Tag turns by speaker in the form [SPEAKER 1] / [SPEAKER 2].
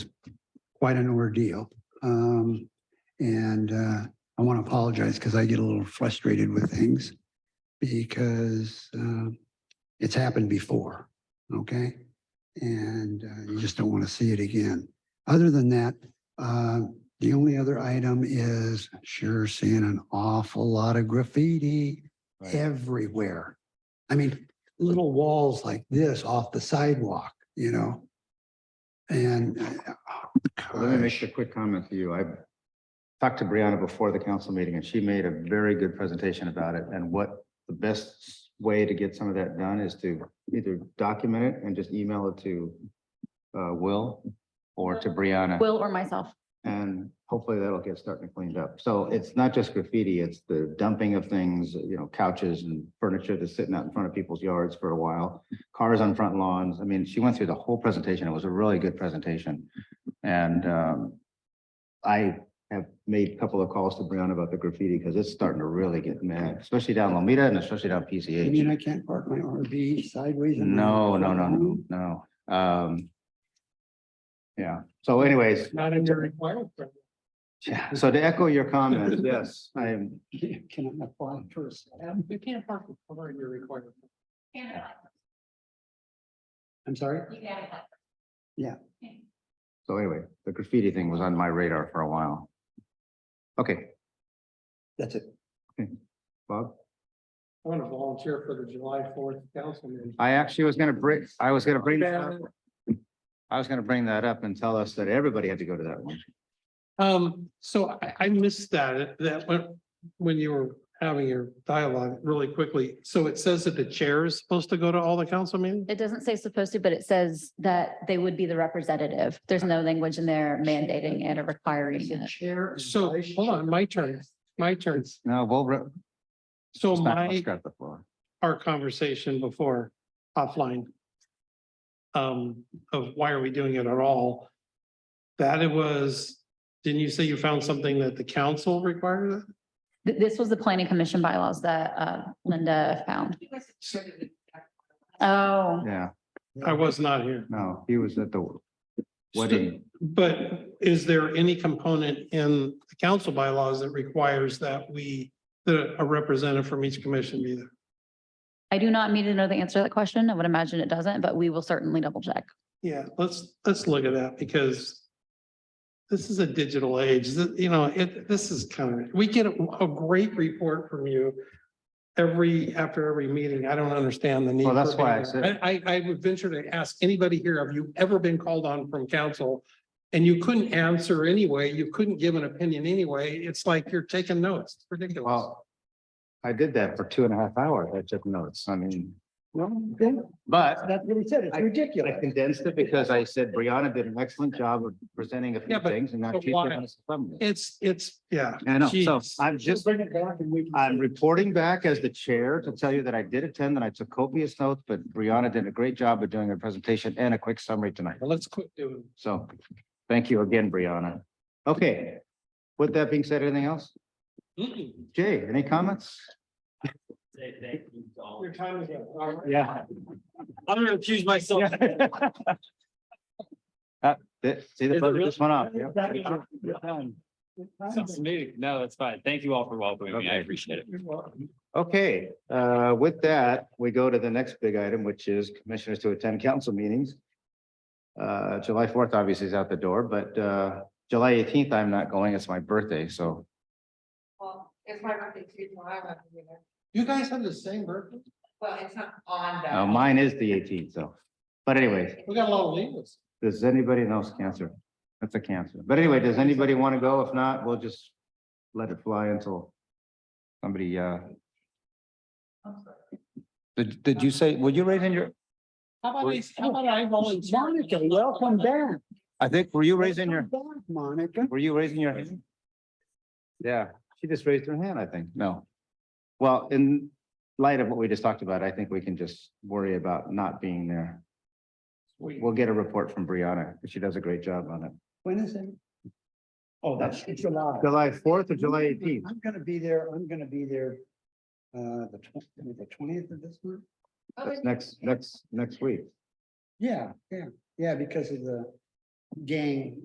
[SPEAKER 1] quite an ordeal. Um, and, uh, I want to apologize because I get a little frustrated with things because, um, it's happened before, okay? And uh, you just don't want to see it again. Other than that, uh, the only other item is sure seeing an awful lot of graffiti
[SPEAKER 2] Right.
[SPEAKER 1] everywhere. I mean, little walls like this off the sidewalk, you know? And uh,
[SPEAKER 2] Let me make
[SPEAKER 1] gosh,
[SPEAKER 2] a quick comment to you. I talked to Brianna before the council meeting and she made a very good presentation about it and what the best way to get some of that done is to either document it and just email it to uh, Will or to Brianna.
[SPEAKER 3] Will or myself.
[SPEAKER 2] And hopefully that'll get starting to cleaned up. So it's not just graffiti, it's the dumping of things, you know, couches and furniture that's sitting out in front of people's yards for a while. Cars on front lawns. I mean, she went through the whole presentation. It was a really good presentation. And um, I have made a couple of calls to Brianna about the graffiti because it's starting to really get mad, especially down Lomita and especially down
[SPEAKER 1] you
[SPEAKER 2] PCH.
[SPEAKER 1] mean I can't park my RV sideways? in my-
[SPEAKER 2] No, no, no, no, no. Um, yeah. So anyways,
[SPEAKER 4] Not in your requirement.
[SPEAKER 2] Yeah, so to echo your comment, yes, I'm,
[SPEAKER 1] Can I apply first?
[SPEAKER 4] Um, You can't park the car in your requirement.
[SPEAKER 1] I'm sorry?
[SPEAKER 2] so anyway, the graffiti thing was on my radar for a while. Okay,
[SPEAKER 1] That's it.
[SPEAKER 2] Bob,
[SPEAKER 4] I want to volunteer for the July fourth council meeting.
[SPEAKER 2] I actually was gonna bring, I was gonna bring, that
[SPEAKER 4] Yeah.
[SPEAKER 2] up. I was gonna bring that up and tell us that everybody had to go to that one.
[SPEAKER 4] Um, so I, I missed that, that when, when you were having your dialogue really quickly. So it says that the chair is supposed to go to all the council meetings?
[SPEAKER 3] It doesn't say supposed to, but it says that they would be the representative. There's no language in there mandating it or requiring it.
[SPEAKER 1] Chair.
[SPEAKER 4] So, hold on, my turn, my turn.
[SPEAKER 2] No, we'll. re-
[SPEAKER 4] So
[SPEAKER 2] it's not- let's
[SPEAKER 4] my,
[SPEAKER 2] grab the floor.
[SPEAKER 4] our conversation before offline um, of why are we doing it at all? That it was, didn't you say you found something that the council required? it?
[SPEAKER 3] Th- This was the planning commission bylaws that uh, Linda found. Oh,
[SPEAKER 2] Yeah,
[SPEAKER 4] I was not here.
[SPEAKER 2] no, he was at the wedding.
[SPEAKER 4] But is there any component in the council bylaws that requires that we, that a representative from each commission be there?
[SPEAKER 3] I do not need to know the answer to that question. I would imagine it doesn't, but we will certainly double check.
[SPEAKER 4] Yeah, let's, let's look at that because this is a digital age, Th- you know, it, this is kind of, we get a a great report from you every, after every meeting. I don't understand the need.
[SPEAKER 2] Well, that's
[SPEAKER 4] for
[SPEAKER 2] why I
[SPEAKER 4] being there.
[SPEAKER 2] said-
[SPEAKER 4] I, I I would venture to ask anybody here, have you ever been called on from council? And you couldn't answer anyway, you couldn't give an opinion anyway. It's like you're taking notes. It's ridiculous.
[SPEAKER 2] Well, I did that for two and a half hours. I took notes. I mean, but
[SPEAKER 1] That's what he said. It's
[SPEAKER 2] I- I
[SPEAKER 1] ridiculous.
[SPEAKER 2] condensed it because I said Brianna did an excellent job of presenting a
[SPEAKER 4] Yeah,
[SPEAKER 2] few
[SPEAKER 4] but-
[SPEAKER 2] things and now
[SPEAKER 4] but
[SPEAKER 2] she's
[SPEAKER 4] why?
[SPEAKER 2] giving us a thumbnail.
[SPEAKER 4] It's, it's, yeah.
[SPEAKER 2] I know, so
[SPEAKER 4] Jeez.
[SPEAKER 2] I'm just,
[SPEAKER 1] Bring it back and we. can-
[SPEAKER 2] I'm reporting back as the chair to tell you that I did attend and I took copious notes, but Brianna did a great job of doing her presentation and a quick summary tonight.
[SPEAKER 4] Well, Let's quit doing.
[SPEAKER 2] So thank you again, Brianna. Okay, with that being said, anything else? Jay, any comments?
[SPEAKER 4] Your time is up. All right.
[SPEAKER 2] Yeah.
[SPEAKER 5] I'm gonna accuse myself.
[SPEAKER 2] See the
[SPEAKER 5] Is it
[SPEAKER 2] buzzer
[SPEAKER 5] really-
[SPEAKER 2] just went off. Yep.
[SPEAKER 5] Sounds smooth. No, that's fine. Thank you all for welcoming me. I appreciate it.
[SPEAKER 2] Okay, uh, with that, we go to the next big item, which is commissioners to attend council meetings. Uh, July fourth obviously is out the door, but, uh, July eighteenth, I'm not going. It's my birthday, so.
[SPEAKER 6] Well, it's my birthday too, so I won't be there.
[SPEAKER 4] You guys have the same birthday?
[SPEAKER 6] Well, it's not on
[SPEAKER 2] Now,
[SPEAKER 6] that.
[SPEAKER 2] uh, Oh, mine is the eighteenth, so. But anyways,
[SPEAKER 4] We got a lot of leaders.
[SPEAKER 2] does anybody else cancer? That's a cancer. But anyway, does anybody want to go? If not, we'll just let it fly until somebody, uh. Did, did you say, would you raise in your,
[SPEAKER 4] How about, I- how about I volunteer?
[SPEAKER 1] Monica, welcome back.
[SPEAKER 2] I think, were you raising your?
[SPEAKER 1] Welcome back, Monica.
[SPEAKER 2] Were you raising your hand? Yeah, she just raised her hand, I think. No. Well, in light of what we just talked about, I think we can just worry about not being there. We'll get a report from Brianna. 'cause She does a great job on it.
[SPEAKER 1] When is it? Oh, that's July.
[SPEAKER 2] July fourth or July eighteenth?
[SPEAKER 1] I'm gonna be there, I'm gonna be there, uh, the twentieth, the twentieth of this month?
[SPEAKER 6] Oh,
[SPEAKER 2] That's next, next, next week.
[SPEAKER 1] Yeah, yeah, yeah, because of the gang